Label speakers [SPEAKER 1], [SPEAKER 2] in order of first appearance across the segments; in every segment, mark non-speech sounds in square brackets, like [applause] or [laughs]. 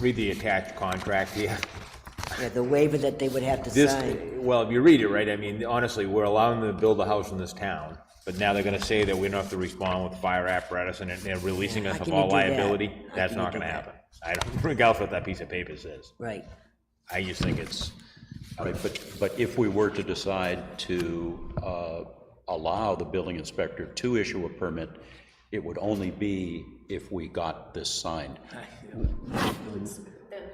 [SPEAKER 1] read the attached contract here.
[SPEAKER 2] Yeah, the waiver that they would have to
[SPEAKER 1] This,
[SPEAKER 2] sign.
[SPEAKER 1] well, if you read it, right, I mean, honestly, we're allowing them to build a house in this town, but now they're gonna say that we don't have to respond with fire apparatus and they're releasing us
[SPEAKER 2] How
[SPEAKER 1] of
[SPEAKER 2] can you
[SPEAKER 1] all
[SPEAKER 2] do that?
[SPEAKER 1] liability.
[SPEAKER 2] How
[SPEAKER 1] That's
[SPEAKER 2] can you
[SPEAKER 1] not
[SPEAKER 2] do
[SPEAKER 1] gonna
[SPEAKER 2] that?
[SPEAKER 1] happen. I don't [laughs] regard what that piece of paper says.
[SPEAKER 2] Right.
[SPEAKER 1] I just think it's,
[SPEAKER 3] Right, but, but if we were to decide to uh, allow the building inspector to issue a permit, it would only be if we got this signed.
[SPEAKER 4] Then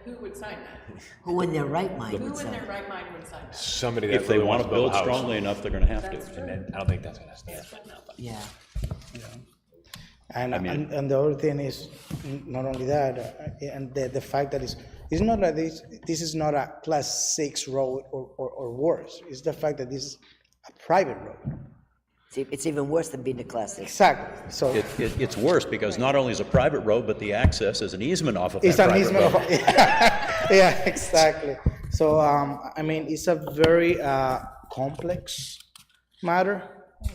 [SPEAKER 4] who would sign that?
[SPEAKER 2] Who in their right mind would
[SPEAKER 4] Who in
[SPEAKER 2] sign?
[SPEAKER 4] their right mind would sign that?
[SPEAKER 1] somebody that
[SPEAKER 3] If they
[SPEAKER 1] really
[SPEAKER 3] want
[SPEAKER 1] wants
[SPEAKER 3] to build
[SPEAKER 1] a house.
[SPEAKER 3] strongly enough, they're going to have to.
[SPEAKER 1] And I don't think that's gonna, that's gonna happen.
[SPEAKER 2] Yeah.
[SPEAKER 5] And, and, and the other thing is, n- not only that, uh, and the, the fact that it's, it's not that this, this is not a class six road or, or, or worse. It's the fact that this is a private road.
[SPEAKER 2] It's e- It's even worse than being a class six.
[SPEAKER 5] Exactly. So
[SPEAKER 3] It, it, it's worse, because not only is it a private road, but the access is an easement off of that
[SPEAKER 5] it's an
[SPEAKER 3] private
[SPEAKER 5] easement of,
[SPEAKER 3] road.
[SPEAKER 5] [laughs] yeah, exactly. So, um, I mean, it's a very, uh, complex matter,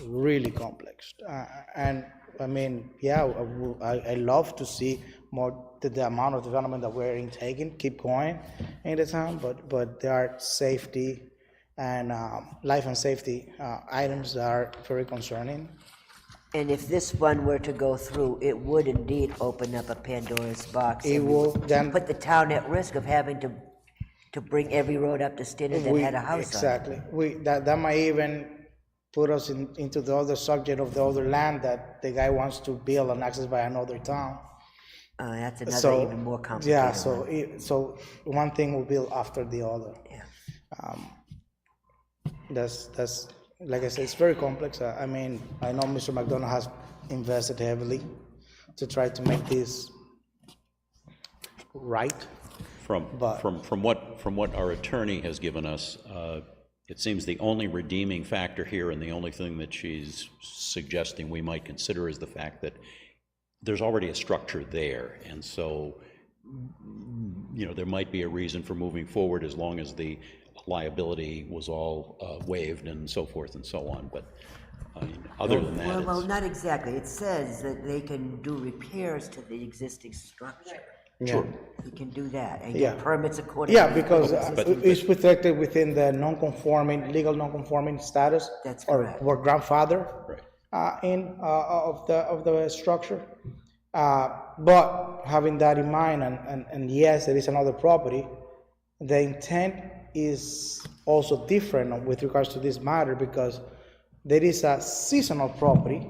[SPEAKER 5] really complex. Uh, and, I mean, yeah, I, wou- I- I love to see more, the, the amount of development that we're in taking, keep going in the town, but, but there are safety and, um, life and safety, uh, items that are very concerning.
[SPEAKER 2] And if this one were to go through, it would indeed open up a Pandora's box.
[SPEAKER 5] It
[SPEAKER 2] and we
[SPEAKER 5] will
[SPEAKER 2] would
[SPEAKER 5] then-
[SPEAKER 2] Put the town at risk of having to, to bring every road up to standard that
[SPEAKER 5] We-
[SPEAKER 2] had a house on it.
[SPEAKER 5] Exactly. We, that, that might even put us in, into the other subject of the other land that the guy wants to build and access by another town.
[SPEAKER 2] Uh, that's
[SPEAKER 5] So.
[SPEAKER 2] another even more complicated.
[SPEAKER 5] Yeah, so, it- so one thing will build after the other.
[SPEAKER 2] Yeah.
[SPEAKER 5] That's, that's, like I said, it's very complex. I, I mean, I know Mr. McDonough has invested heavily to try to make this right.
[SPEAKER 3] From,
[SPEAKER 5] But-
[SPEAKER 3] from, from what, from what our attorney has given us, uh, it seems the only redeeming factor here and the only thing that she's suggesting we might consider is the fact that there's already a structure there, and so, you know, there might be a reason for moving forward as long as the liability was all uh, waived and so forth and so on, but, I mean, other than that,
[SPEAKER 2] Well, well,
[SPEAKER 3] it's-
[SPEAKER 2] not exactly. It says that they can do repairs to the existing structure.
[SPEAKER 5] Sure.
[SPEAKER 2] You can do that and get
[SPEAKER 5] Yeah.
[SPEAKER 2] permits accordingly.
[SPEAKER 5] Yeah, because uh, it's protected within the non-conforming, legal non-conforming status.
[SPEAKER 2] That's correct.
[SPEAKER 5] Or were grandfather
[SPEAKER 3] Right.
[SPEAKER 5] uh, in, uh, of the, of the structure. Uh, But having that in mind, and, and, and yes, it is another property, the intent is also different with regards to this matter because there is a seasonal property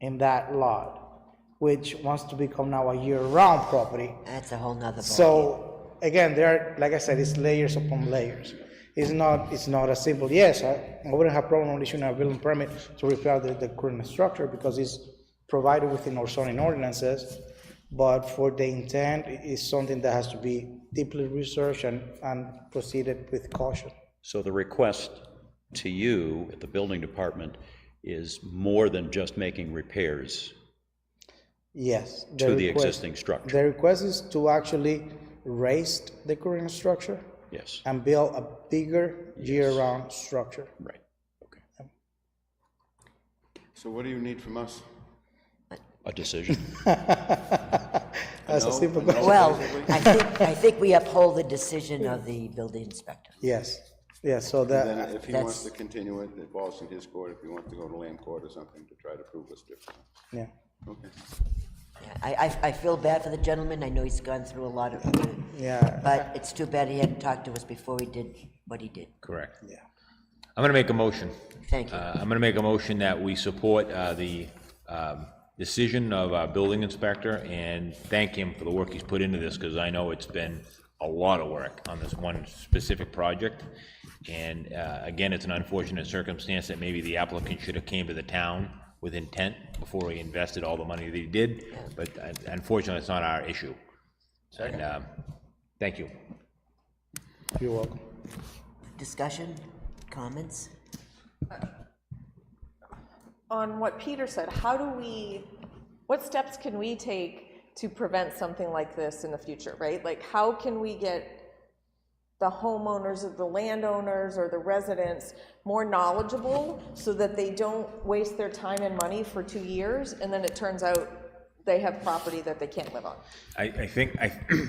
[SPEAKER 5] in that lot, which wants to become now a year-round property.
[SPEAKER 2] That's a whole nother ball.
[SPEAKER 5] So
[SPEAKER 3] Oh.
[SPEAKER 5] again, there are, like I said, it's layers upon layers. It's not, it's not a simple, yes, I, I wouldn't have problem with issuing a building permit to repair the, the current structure because it's provided within our zoning ordinances. But for the intent, it is something that has to be deeply researched and, and proceeded with caution.
[SPEAKER 3] So the request to you at the building department is more than just making repairs
[SPEAKER 5] Yes.
[SPEAKER 3] to the
[SPEAKER 5] request-
[SPEAKER 3] existing structure?
[SPEAKER 5] The request is to actually raise the current structure
[SPEAKER 3] Yes,
[SPEAKER 5] and build a bigger year-round structure.
[SPEAKER 3] right.
[SPEAKER 6] So what do you need from us?
[SPEAKER 3] A decision.
[SPEAKER 5] That's a
[SPEAKER 6] No,
[SPEAKER 5] simple
[SPEAKER 6] no.
[SPEAKER 5] question.
[SPEAKER 2] Well, I think, I think we uphold the decision of the building inspector.
[SPEAKER 5] Yes, yes, so
[SPEAKER 6] Then
[SPEAKER 5] that,
[SPEAKER 6] if he wants to continue it, it falls in his court, if he wants to go to land court or something to try to prove us different.
[SPEAKER 5] yeah,
[SPEAKER 6] Okay.
[SPEAKER 2] Yeah, I, I, I feel bad for the gentleman. I know he's gone through a lot of,
[SPEAKER 5] yeah,
[SPEAKER 2] but it's too bad he hadn't talked to us before he did what he did.
[SPEAKER 1] Correct.
[SPEAKER 5] yeah.
[SPEAKER 1] I'm gonna make a motion.
[SPEAKER 2] Thank you.
[SPEAKER 1] Uh, I'm going to make a motion that we support uh, the um, decision of our building inspector and thank him for the work he's put into this, because I know it's been a lot of work on this one specific project. And uh, again, it's an unfortunate circumstance that maybe the applicant should have came to the town with intent before he invested all the money that he did, but uh, unfortunately, it's not our issue. And um, thank you.
[SPEAKER 5] You're welcome.
[SPEAKER 2] Discussion, comments?
[SPEAKER 4] On what Peter said, how do we, what steps can we take to prevent something like this in the future, right? Like, how can we get the homeowners or the landowners or the residents more knowledgeable so that they don't waste their time and money for two years and then it turns out they have property that they can't live on?
[SPEAKER 1] I, I think, I,